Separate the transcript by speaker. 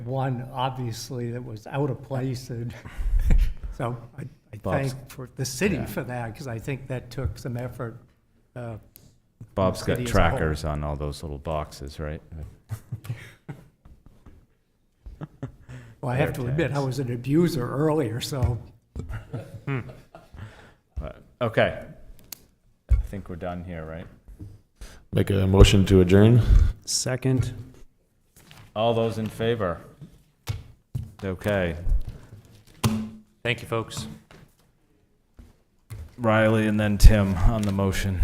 Speaker 1: one, obviously, that was out of place, and so I I
Speaker 2: Bob's-
Speaker 1: thank for the city for that, because I think that took some effort. uh,
Speaker 2: Bob's got
Speaker 1: City as a whole.
Speaker 2: trackers on all those little boxes, right?
Speaker 1: Well, I have to admit, I was an abuser earlier, so
Speaker 2: Okay. I think we're done here, right?
Speaker 3: Make a motion to adjourn?
Speaker 4: Second.
Speaker 2: All those in favor? Okay.
Speaker 4: Thank you, folks.
Speaker 2: Riley and then Tim on the motion.